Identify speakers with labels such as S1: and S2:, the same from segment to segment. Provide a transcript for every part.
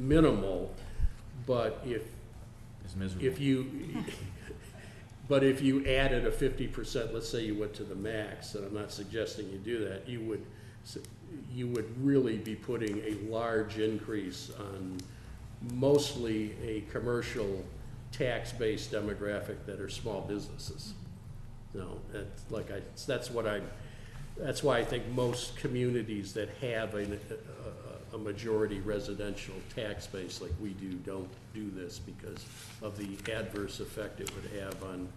S1: minimal, but if,
S2: It's miserable.
S1: if you, but if you added a fifty percent, let's say you went to the max, and I'm not suggesting you do that, you would, s- you would really be putting a large increase on mostly a commercial tax-based demographic that are small businesses. No, that's like I, that's what I, that's why I think most communities that have a, a, a majority residential tax base like we do, don't do this because of the adverse effect it would have on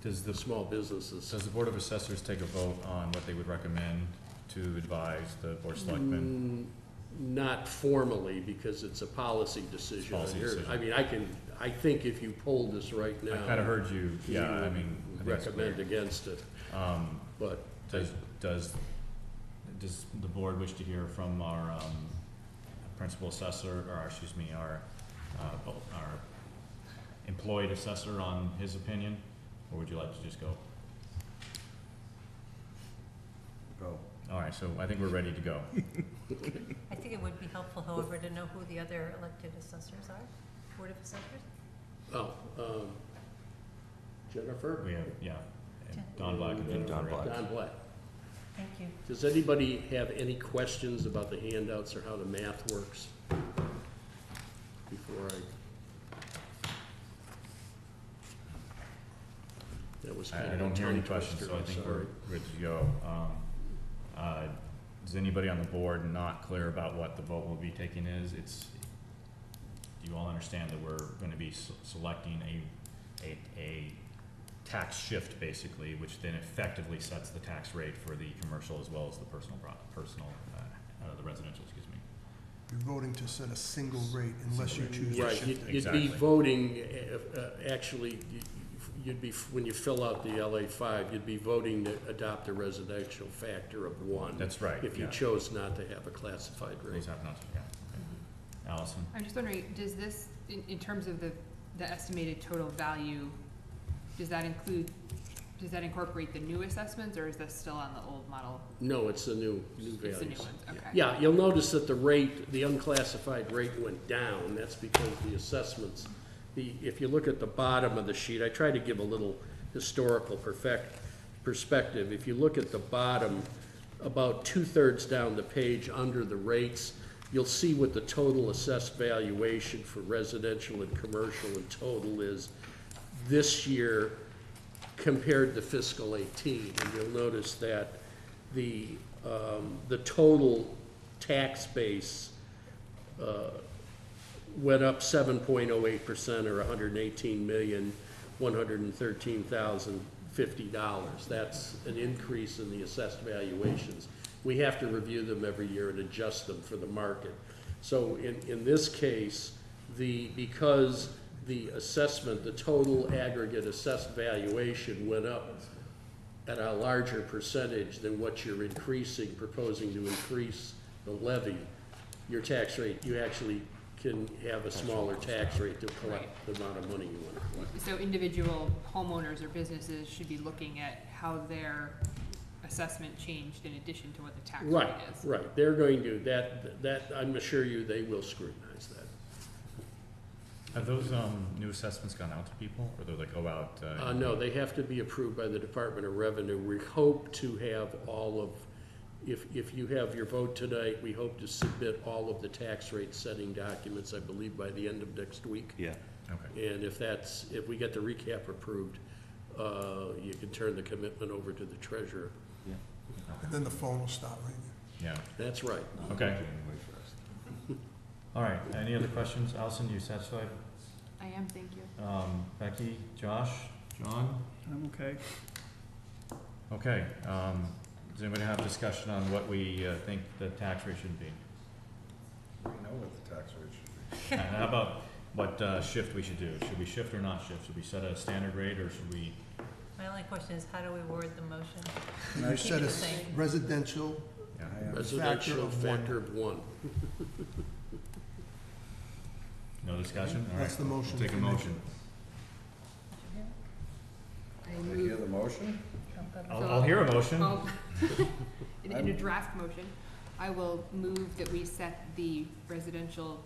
S2: Does
S1: the
S2: the,
S1: small businesses.
S2: does the Board of Assessors take a vote on what they would recommend to advise the Board of Selectmen?
S1: Mm, Not formally, because it's a policy decision. on
S2: Policy
S1: your-
S2: decision.
S1: I mean, I can, I think if you polled this right
S2: I
S1: now.
S2: kinda heard you,
S1: you
S2: yeah, I
S1: would
S2: mean, I think it's
S1: Recommend
S2: clear.
S1: against it,
S2: Um,
S1: but.
S2: does, does, does the board wish to hear from our, um, principal assessor, or, excuse me, our, uh, bo- our employed assessor on his opinion? Or would you like to just go?
S3: Go.
S2: All right, so I think we're ready to go.
S4: I think it would be helpful, however, to know who the other elected assessors are, Board of Assessors?
S1: Oh, um, Jennifer?
S2: We have, yeah, and Don Black and Jennifer.
S3: Don
S2: Ray.
S3: Black.
S1: Don Black.
S4: Thank you.
S1: Does anybody have any questions about the handouts or how the math works? Before I. That was kind
S2: I, I
S1: of a
S2: don't hear any
S1: tongue
S2: questions,
S1: twister,
S2: so I
S1: I'm
S2: think we're
S1: sorry.
S2: good to go. Um, uh, Is anybody on the board not clear about what the vote will be taking is? It's, do you all understand that we're gonna be s- selecting a, a, a tax shift, basically, which then effectively sets the tax rate for the commercial as well as the personal, pro- personal, uh, uh, the residential, excuse me.
S5: You're voting to set a single rate unless you choose to
S1: Right,
S5: shift
S1: you'd-
S5: it.
S1: you'd be
S2: Exactly.
S1: voting, uh, uh, actually, you- you'd be, when you fill out the LA five, you'd be voting to adopt a residential factor of one.
S2: That's right,
S1: If you
S2: yeah.
S1: chose not to have a classified
S2: Those
S1: rate.
S2: have not, yeah,
S1: Mm-hmm.
S2: okay. Allison?
S6: I'm just wondering, does this, in, in terms of the, the estimated total value, does that include, does that incorporate the new assessments, or is this still on the old model?
S1: No, it's the new, new
S6: It's
S1: values.
S6: the new ones, okay.
S1: Yeah, you'll notice that the rate, the unclassified rate went down, that's because the assessments, the, if you look at the bottom of the sheet, I try to give a little historical perfect, perspective. If you look at the bottom, about two-thirds down the page, under the rates, you'll see what the total assessed valuation for residential and commercial and total is this year compared to fiscal eighteen. And you'll notice that the, um, the total tax base, uh, went up seven point oh eight percent or hundred and eighteen million, one hundred and thirteen thousand fifty dollars. That's an increase in the assessed valuations. We have to review them every year and adjust them for the market. So in, in this case, the, because the assessment, the total aggregate assessed valuation went up at a larger percentage than what you're increasing, proposing to increase the levy, your tax rate, you actually can have a smaller tax rate to collect the amount of money you want to collect.
S6: So individual homeowners or businesses should be looking at how their assessment changed in addition to what the tax rate
S1: Right,
S6: is.
S1: right, they're going to, that, that, I'm assure you, they will scrutinize that.
S2: Have those, um, new assessments gone out to people, or do they go out?
S1: Uh, no, they have to be approved by the Department of Revenue. We hope to have all of, if, if you have your vote tonight, we hope to submit all of the tax rate setting documents, I believe, by the end of next week.
S3: Yeah.
S2: Okay.
S1: And if that's, if we get the recap approved, uh, you can turn the commitment over to the treasurer.
S5: And then the phone will stop ringing.
S2: Yeah,
S1: That's right.
S2: okay.
S3: January first.
S2: All right, any other questions? Allison, you satisfied?
S6: I am, thank you.
S2: Um, Becky, Josh, John? I'm okay. Okay, um, does anybody have discussion on what we, uh, think the tax rate should be?
S3: We know what the tax rate should
S2: And how about what, uh, shift we should do? Should we shift or not shift? Should we set a standard rate or should we?
S4: My only question is, how do we word the motion?
S5: You
S4: keep
S5: set
S4: it
S5: a
S4: the same.
S5: residential,
S2: Yeah.
S3: be.
S1: Residential
S5: Factor of one.
S1: factor of one.
S2: No discussion? All right.
S5: That's the
S2: we'll
S5: motion
S2: Take a
S5: for me.
S2: motion.
S6: I
S3: Did I hear
S6: move,
S3: the motion?
S2: I'll, I'll hear a motion.
S6: well, in in a draft motion, I will move that we set the residential